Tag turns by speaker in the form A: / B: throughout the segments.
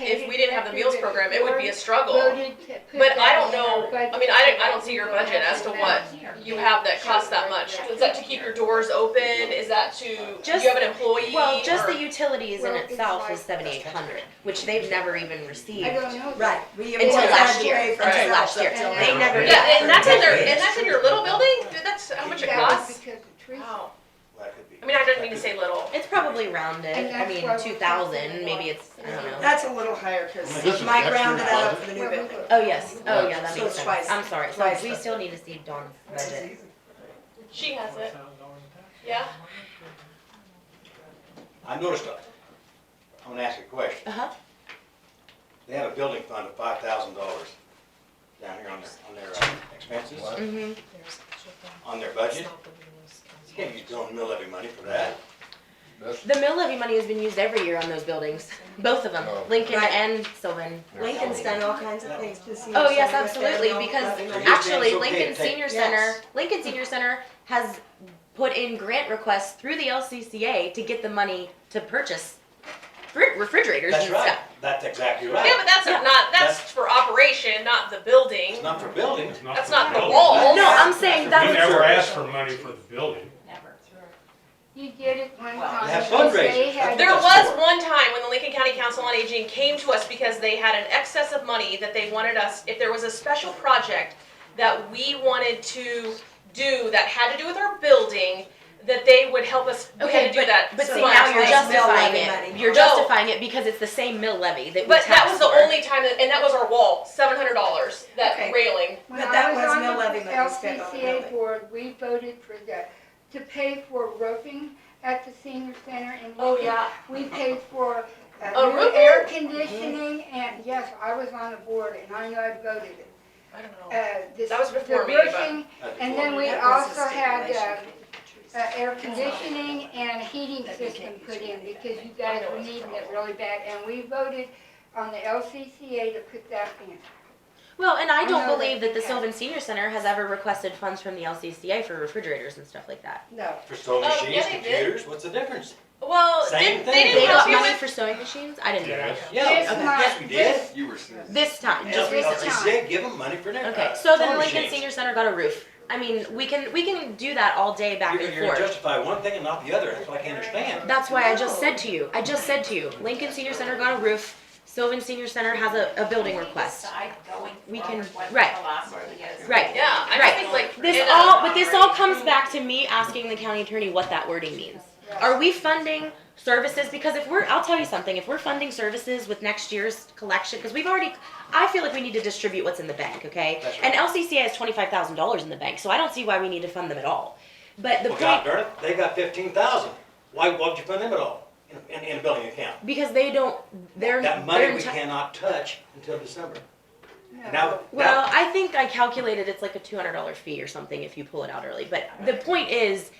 A: if we didn't have the meals program, it would be a struggle.
B: Voted to put
A: But I
B: that
A: don't
B: in our
A: know, I
B: budget.
A: mean, I don't, I don't see your budget as to what you have that costs that much. Is that to keep your doors open? Is that to, do
C: Just-
A: you have an employee?
C: Well, just
A: or-
C: the utilities in
B: Well, it's
C: itself
B: like-
C: is seventy-eight hundred, which they've never even received.
B: I don't know.
D: Right. we- we
C: Until
D: had
C: last
D: to
C: year.
D: waive
A: Until
D: ourselves
C: last year.
D: up till
B: They
D: now.
C: never-
A: Yeah, and that's in their,
E: Yeah.
A: and that's in your little building? Dude, that's how much it
B: That was
A: costs?
B: because of trees.
A: Wow.
E: That could be.
A: I mean, I didn't mean to say little.
C: It's probably rounded,
B: And
C: I
B: that's
C: mean,
B: why we
C: two
B: can't
C: thousand, maybe
B: do
C: it's, I don't know.
D: That's a little higher,
E: Well, this
D: cause
E: is
D: Mike
E: extra
D: rounded that up
E: deposit.
D: for the new
B: Where we
D: building.
B: were.
C: Oh, yes, oh, yeah, that
D: So
C: makes
D: it's twice-
C: sense, I'm sorry, so
D: twice
C: we
D: the-
C: still need to see Dawn's budget.
A: She has it. Yeah?
E: I noticed, a- I'm gonna ask you a question.
C: Uh-huh,
E: They have a building fund of five thousand dollars down here on their, on their uh, expenses,
C: mm-hmm,
E: on their budget. You can't use your own mill levy money for that.
F: That's,
C: the mill levy money has been used every year on those buildings, both of them,
F: Oh.
C: Lincoln
D: Right.
C: and Sylvan.
D: Lincoln's done all kinds of things to see.
C: Oh,
D: us
C: yes,
D: and with their
C: absolutely,
D: own
C: because
D: levy money.
E: you're saying
C: actually
E: it's okay to
C: Lincoln
E: take-
C: Senior
D: Yes.
C: Center, Lincoln Senior Center has put in grant requests through the LCCA to get the money to purchase fri- refrigerators and
E: That's right,
C: stuff.
E: that's exactly
A: Yeah,
E: right.
A: but that's
C: Yeah.
A: not, that's for operation, not the building.
E: It's not for buildings.
A: That's not the
C: No,
A: wall.
C: I'm saying that
G: We
C: was.
G: never asked for money for the building.
B: You did it one
D: Well,
B: time.
E: they have
B: because
E: fundraisers.
B: they had-
A: There was one time when the Lincoln County Council on Aging came to us because they had an excess of money that they wanted us, if there was a special project that we wanted to do that had to do with our building, that they would help us, we
C: Okay,
A: had to do that.
C: But
D: So
C: see,
D: much
C: now you're
D: less mill
C: justifying
D: levy
C: it.
D: money.
A: No.
C: You're justifying it because it's the same mill levy that we
A: But
C: tax
A: that was the
C: for.
A: only time, that, and that was our wall, seven hundred dollars, that
D: Okay.
A: railing.
B: When
D: But
B: I
D: that was
B: on
D: no
B: the
D: levy money spent on the
B: LPCA
D: building.
B: board, we voted for the, to pay for roofing at the senior center in Lincoln.
A: Oh, yeah.
B: We paid for uh,
A: Oh,
B: new
A: roofing?
B: air conditioning, and yes, I was on the board, and I know I voted it.
A: I don't know.
B: Uh, this-
A: Oh, That was
B: the
A: before me, but-
B: roofing,
E: That's
B: And
E: before
B: then
E: me.
B: we
D: That was a
B: also had,
D: stipulation.
B: uh, air conditioning and a heating system put in, because you guys were needing it really bad, and we voted on the LCCA to put that in.
C: Well, and
A: Oh,
C: I don't
B: know
C: believe
B: that
C: that the
B: we
C: Sylvan Senior Center has ever requested funds from the LCCA for refrigerators and stuff like that.
D: No,
E: For sewing
A: Oh, yeah,
E: machines,
A: they did.
E: computers, what's the difference?
A: Well,
E: Same
A: didn't, they
E: thing.
C: They
A: didn't
C: got
A: help you
C: money
A: with,
C: for sewing machines? I didn't know that.
G: Yes.
E: Yeah,
B: This month,
E: yes, we did.
B: this-
E: You were.
C: This time.
E: Just
B: This
E: because you
B: time.
E: said, give them money for their,
C: Okay,
E: uh,
C: so then
E: sewing
C: Lincoln
E: machines.
C: Senior Center got a roof. I mean, we can, we can do that all day back
E: You're,
C: and
E: you're
C: forth.
E: justifying one thing and not the other, that's what I can't understand.
C: That's why I just said to you, I just said to you, Lincoln Senior Center got a roof, Sylvan Senior Center has a, a building request. We can- right, right.
A: yeah, I
C: Right.
A: just think like. uh,
C: This
A: in a-
C: all, but this all comes back to me asking the county attorney what that wording means. Are we funding services? Because if we're, I'll tell you something, if we're funding services with next year's collection, because we've already, I feel like we need to distribute what's in the bank, okay?
E: That's right.
C: And LCCA has twenty-five thousand dollars in the bank, so I don't see why we need to fund them at all. But the
E: Well, God
C: point,
E: darn it, they got fifteen thousand. Why, why would you fund them at all in, in, in a building account?
C: because they don't, they're,
E: That
C: they're
E: money we
C: enti-
E: cannot touch until December. Now,
C: Well,
E: now,
C: I think I calculated it's like a two hundred dollar fee or something if you pull it out early, but the point is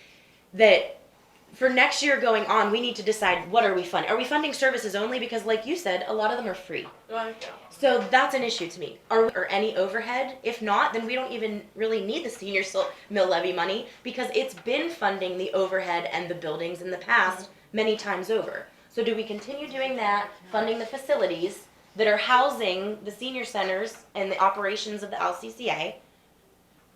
C: that for next year going on, we need to decide what are we funding? Are we funding services only? Because like you said, a lot of them are free.
A: Well, yeah.
C: So that's an issue to me. Are, or any overhead? If not, then we don't even really need the senior sil- mill levy money because it's been funding the overhead and the buildings in the past many times over. So do we continue doing that, funding the facilities that are housing the senior centers and the operations of the LCCA?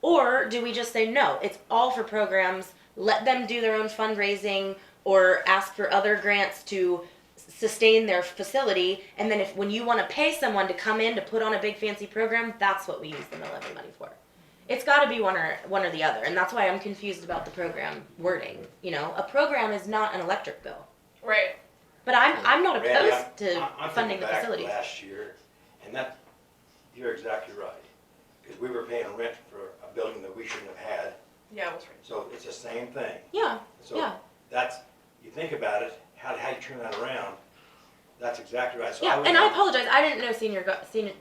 C: Or do we just say, no, it's all for programs, let them do their own fundraising or ask for other grants to sustain their facility and then if when you want to pay someone to come in to put on a big fancy program that's what we use the mill levy money for it's got to be one or one or the other and that's why i'm confused about the program wording you know a program is not an electric bill
A: Right.
C: but i'm i'm not
E: Randy, I'm-
C: opposed to
E: I- I'm
C: funding
E: thinking
C: the
E: back
C: facility
E: Last year, and that, you're exactly right. Because we were paying rent for a building that we shouldn't have had,
A: Yeah, I was right.
E: so it's the same thing.
C: yeah
E: So
C: yeah
E: that's, you think about it, how, how you turn that around, that's exactly right. So
C: yeah
E: would
C: and i
E: like-
C: apologize i didn't know senior got senior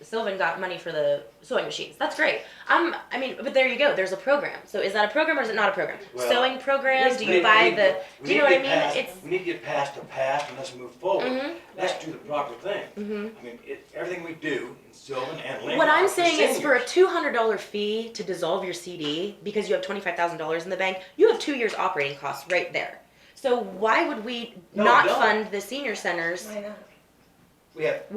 C: sylvan got money for the sewing machines that's great i'm i mean but there you go there's a program so is that a program or is it not a program
E: Well,
C: sewing program
E: Let's
C: do
E: make-
C: you buy
E: we-
C: the
E: we
C: do you
E: need
C: know what
E: to
C: i mean
E: get past-
C: it's
E: We need to get past the past and let's move forward.
C: mhm,
E: Let's do the proper thing.
C: mhm.
E: I mean, it, everything we do in Sylvan and Lincoln.
C: What I'm
E: are for
C: saying is for a
E: seniors.
C: two hundred dollar fee to dissolve your CD because you have twenty five thousand dollars in the bank, you have two years operating costs right there. So why would we
E: No,
C: not
E: don't.
C: fund the senior centers?
D: why not?
E: We have